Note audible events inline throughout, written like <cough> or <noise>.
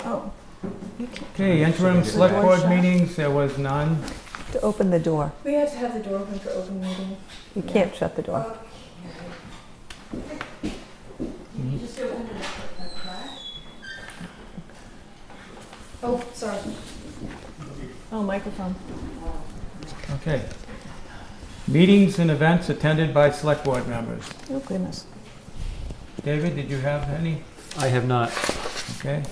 Oh, Okay, interim select board meetings, there was none. to open the door. We have to have the door open for open meeting. You can't shut the door. Oh, sorry. Oh, microphone. Okay. Meetings and events attended by select board members. Oh goodness. David, did you have any? I have not. Okay.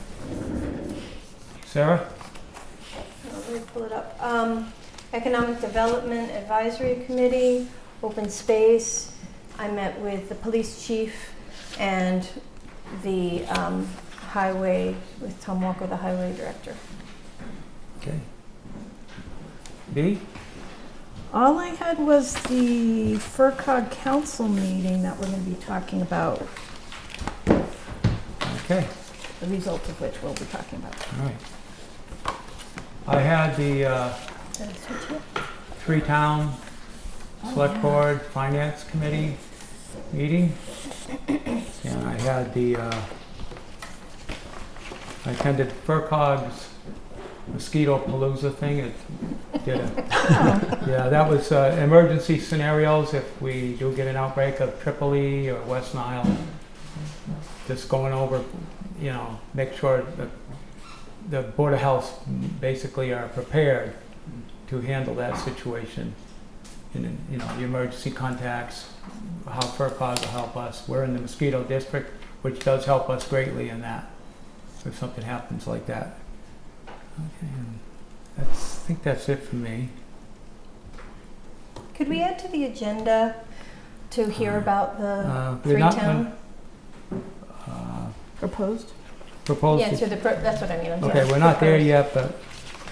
Sarah? Uh, Let me pull it up. Um, Economic Development Advisory Committee, Open Space. I met with the police chief and the um, highway, with Tom Walker, the highway director. Okay. B? All I had was the FERCog council meeting that we're gonna be talking about, Okay, the results of which we'll be talking about. all right. I had the uh, three town select board finance committee meeting. And I had the, uh, I attended FERCog's mosquito palooza thing. It did a Yeah, that was uh, emergency scenarios if we do get an outbreak of Tripoli or West Nile. Just going over, you know, make sure that the Board of Health basically are prepared to handle that situation. And, then, you know, the emergency contacts, how FERPAS will help us. We're in the mosquito district, which does help us greatly in that, if something happens like that. Okay, and that's, I think that's it for me. Could we add to the agenda to hear Uh, about the Uh, we're Free not Town? uh, Proposed? Yeah, proposed, to the, pro- that's what I mean, I'm sorry. okay, we're not there yet, but,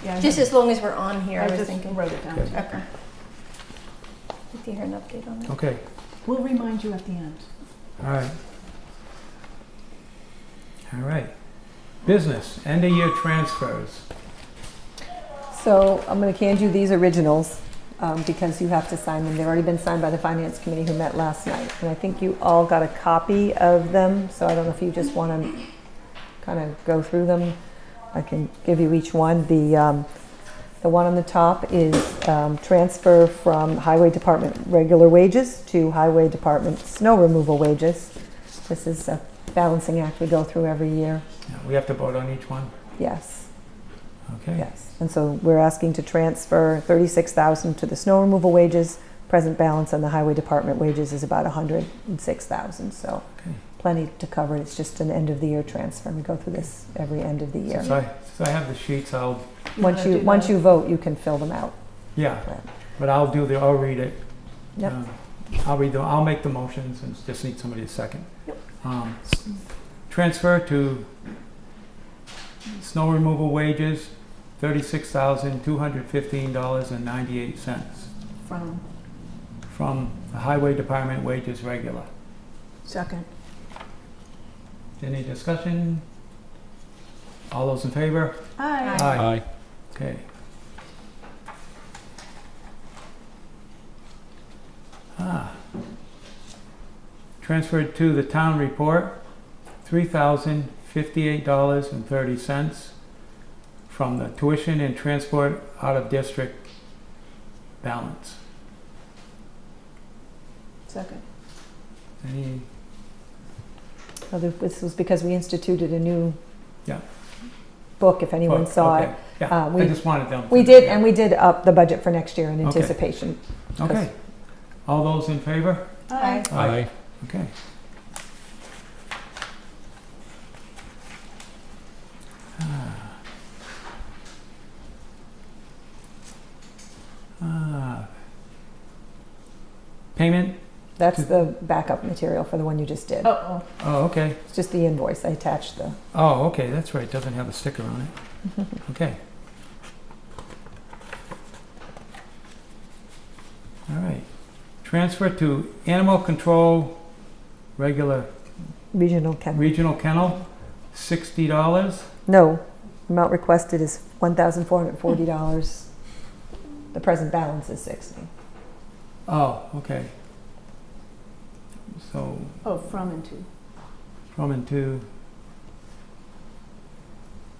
Yeah. I Just had- as long as we're on here, I I was just thinking. wrote it down. Okay. Okay. Did you hear an update on that? okay, We'll remind you at the end. all right. All right. Business, end of year transfers. So I'm going to hand you these originals um, because you have to sign them. They've already been signed by the finance committee who met last night. And I think you all got a copy of them. So I don't know if you just want to kind of go through them. I can give you each one. The um, the one on the top is um, transfer from highway department regular wages to highway department snow removal wages. This is a balancing act we go through every year. Yeah, We have to vote on each one, Yes. okay? Yes, and so we're asking to transfer thirty-six thousand to the snow removal wages. Present balance on the highway department wages is about hundred and six thousand, so Okay. plenty to cover. It's just an end of the year transfer. We go through this every end of the year. Since I, since I have the sheets, I'll, Once you, once you vote, you can fill them out. yeah, Right. but I'll do the, I'll read it. Yep. Um, I'll read the, I'll make the motions and just need somebody to second. Um, s- Transfer to snow removal wages, thirty-six thousand, two hundred fifteen dollars and ninety-eight cents From from the highway department wages regular. second. Any discussion? All those in favor? Aye. Aye. Okay. Ah. Transferred to the town report, three thousand fifty-eight dollars and thirty cents from the tuition and transport out of district balance. Second. Any, So th- This was because we instituted a new Yeah. book, if anyone Well, saw okay, it. Yeah, Uh, I we- just wanted them. to- We did, and we did up the budget for next year in Okay. anticipation. Okay. All those in favor? Aye. Aye. Okay. Ah. Ah. Payment? That's the backup material for the one you just did. Uh-oh. Oh, okay. It's just the invoice. I attached the, Oh, okay, that's right, doesn't have a sticker on it. <laughs> Okay. All right. Transfer to animal control, regular regional chemical. Regional kennel, sixty dollars. No, amount requested is one thousand four hundred forty dollars. The present balance is sixty. Oh, okay. So Oh, from and to. from and to,